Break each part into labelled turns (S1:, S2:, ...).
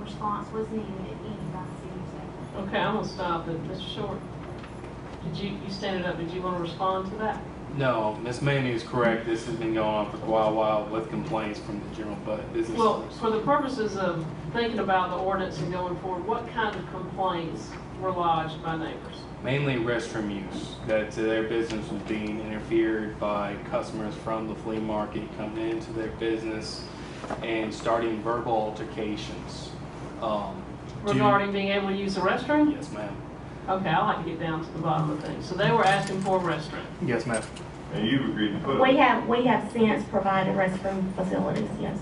S1: response was needed at any by the city of Safety.
S2: Okay, I'm gonna stop it, Mr. Short. Did you, you standing up, did you wanna respond to that?
S3: No, Miss Manning is correct. This has been going on for quite a while with complaints from the general bu- business
S2: Well,
S3: owners.
S2: for the purposes of thinking about the ordinance and going forward, what kind of complaints were lodged by neighbors?
S3: Mainly restroom use, that their business was being interfered by customers from the flea market coming into their business and starting verbal altercations. Um, do-
S2: Regarding being able to use the restroom?
S3: Yes, ma'am.
S2: Okay, I like to get down to the bottom of things. So they were asking for a restroom.
S3: Yes, ma'am.
S4: And you've agreed to put
S5: We
S4: it.
S5: have, we have since provided restroom facilities, yes.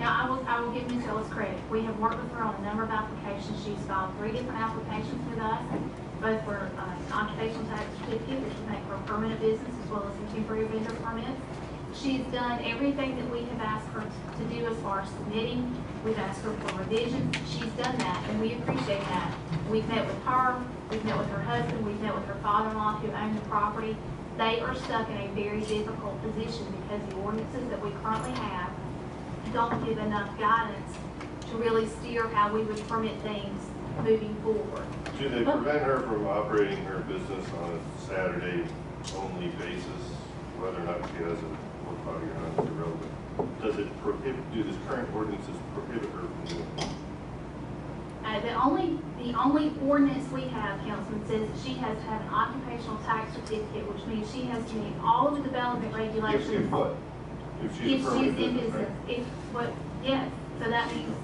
S1: Now, I will, I will give Ms. Ellis credit. We have worked with her on a number of applications. She's filed three different applications with us, both for uh, an occupational tax certificate, which would make for a permanent business, as well as a temporary vendor permit. She's done everything that we have asked her to do as far as submitting. We've asked her for revisions. She's done that, and we appreciate that. We've met with her, we've met with her husband, we've met with her father-in-law who owned the property. They are stuck in a very difficult position because the ordinances that we currently have don't give enough guidance to really steer how we would permit things moving forward.
S4: Should they prevent her from operating her business on a Saturday only basis, whether or not she has a work body or not is irrelevant? Does it prohibit, do this current ordinances prohibit her from doing it?
S1: Uh, the only, the only ordinance we have, Councilman, says that she has to have an occupational tax certificate, which means she has to meet all of the development
S4: If, if
S1: regulations.
S4: what? If
S1: If
S4: she's a
S1: she's
S4: permanent
S1: in
S4: business,
S1: business,
S4: right?
S1: if, what, yes, so that means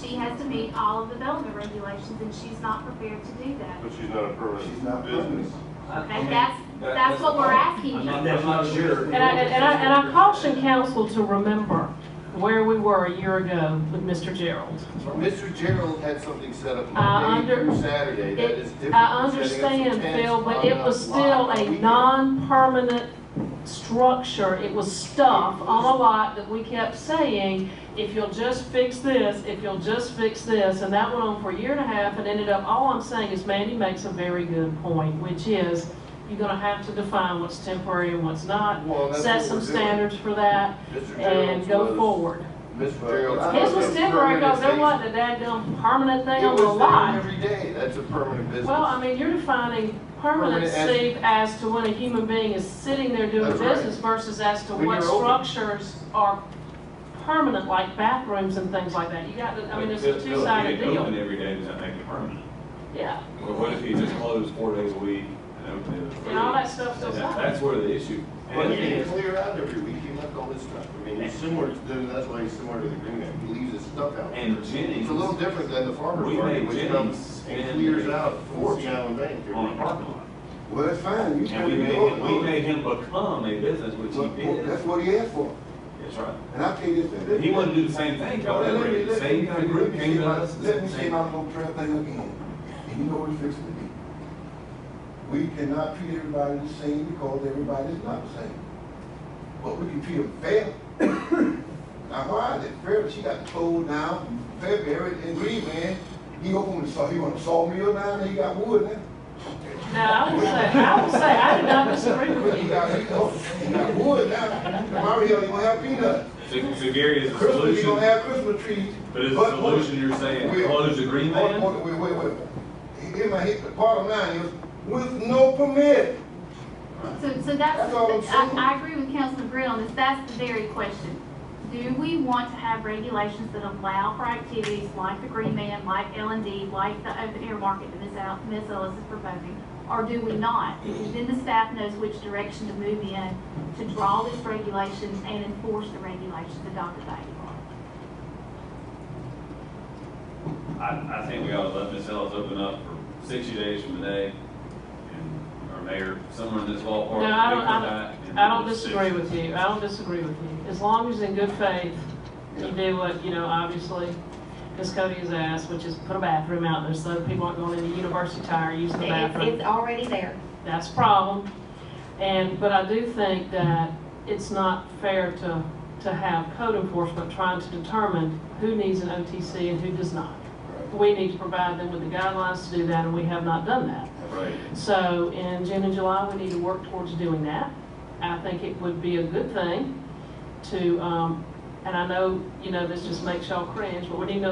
S1: she has to meet all of the development regulations, and she's not prepared to do that.
S4: But she's not a
S6: She's not
S4: permanent business.
S1: And that's, that's what we're asking.
S6: I'm
S1: you.
S6: not, I'm not sure.
S2: And I, and I, and I caution council to remember where we were a year ago with Mr. Gerald.
S7: Mr. Gerald had something set up
S2: I
S7: Monday
S2: under-
S7: through Saturday, that is different.
S2: I
S7: than setting up some
S2: understand,
S7: tents
S2: Phil, but
S7: on
S2: it
S7: a
S2: was
S7: lot
S2: still
S7: on
S2: a
S7: weekend.
S2: non-permanent structure. It was stuff on a lot that we kept saying, if you'll just fix this, if you'll just fix this, and that went on for a year and a half and ended up, all I'm saying is Mandy makes a very good point, which is, you're gonna have to define what's temporary and what's not,
S7: Well, that's
S2: set
S7: what
S2: some
S7: we're doing.
S2: standards for that,
S7: Mr.
S2: and
S7: Gerald's
S2: go
S7: was-
S2: forward.
S7: Mr. Gerald's.
S2: His
S7: was
S2: was
S7: a
S2: temporary
S7: permanent
S2: because there
S7: thing.
S2: wasn't a daggum permanent thing
S7: It
S2: on the
S7: was there
S2: lot.
S7: Every day, that's a permanent business.
S2: Well, I mean, you're defining permanent,
S7: Permanent as-
S2: Steve, as to when a human being is sitting there doing
S7: That's right.
S2: business versus as to
S7: When
S2: what
S7: you're open.
S2: structures are permanent, like bathrooms and things like that. You got, to- I mean, it's a two-sided
S8: Open
S2: deal.
S8: every day, does that make it permanent?
S2: Yeah,
S8: Well, what if he just closed four days a week and opened it? every
S2: and all
S8: week?
S2: that stuff still
S8: That-
S2: happens.
S8: That's where the issue.
S7: But he
S8: is.
S7: didn't clear out every week, he left all this stuff, I mean, he's similar to, that's why he's similar to the green man, he leaves his stuff out.
S8: And Jennings.
S7: It's a little different than the farmer's
S8: We
S7: market,
S8: made
S7: which
S8: Jennings
S7: comes and
S8: spend
S7: clears out
S8: a
S7: four
S8: fortune
S7: gallon bank. every
S8: On a
S7: week.
S8: parking lot.
S6: Well, that's fine, you
S8: And
S6: can
S8: we
S6: be
S8: made, him- we
S6: going.
S8: made him become a business, which he did.
S6: That's what he asked for,
S8: That's right.
S6: and I tell you this.
S8: But he wouldn't do the same thing, y'all,
S6: Let me-
S8: every,
S6: let
S8: same
S6: me-
S8: kind of group
S6: let me
S8: came
S6: say
S8: to
S6: my-
S8: us.
S6: Let me say my little crap thing again, and you know what it's fixing to be. We cannot treat everybody the same because everybody's not the same. But we can treat them fair. Now, why is it fair that she got told down February and Green Man, he opened the saw, he want a sawmill now, and he got wood now?
S2: Now, I will say, I will say, I did not disagree with
S6: He
S2: you.
S6: got, he got- he got wood now, tomorrow he don't have peanuts.
S8: So so Gary, is the
S6: Christmas, you don't
S8: solution,
S6: have Christmas trees.
S8: but is the solution you're saying,
S6: We'll-
S8: close the green
S6: Hold-
S8: man?
S6: hold- Wait, wait, wait. He- he- he- the bottom line is, with no permit.
S1: So, so
S6: That's all I'm
S1: that's, I,
S6: saying.
S1: I agree with Councilman Green on this, that's the very question. Do we want to have regulations that allow for activities like the Green Man, like L and D, like the open air market that Ms. Al, Ms. Ellis is proposing? Or do we not? Because then the staff knows which direction to move in to draw this regulation and enforce the regulations adopted by you.
S8: I, I think we ought to let Ms. Ellis open up for sixty days from today, and our mayor, someone in this ballpark.
S2: No, I don't-
S8: we
S2: I
S8: come
S2: don't-
S8: back and
S2: I don't
S8: we'll see.
S2: disagree with you, I don't disagree with you. As long as in good faith, you do what, you know, obviously, Ms. Cody has asked, which is put a bathroom out there so people aren't going into university tire using the
S5: It's,
S2: bathroom.
S5: it's already there.
S2: that's a problem. And, but I do think that it's not fair to, to have code enforcement trying to determine who needs an OTC and who does not. We need to provide them with the guidelines to do that, and we have not done that.
S8: Right.
S2: So in June and July, we need to work towards doing that. I think it would be a good thing to, um, and I know, you know, this just makes y'all cringe, but we need to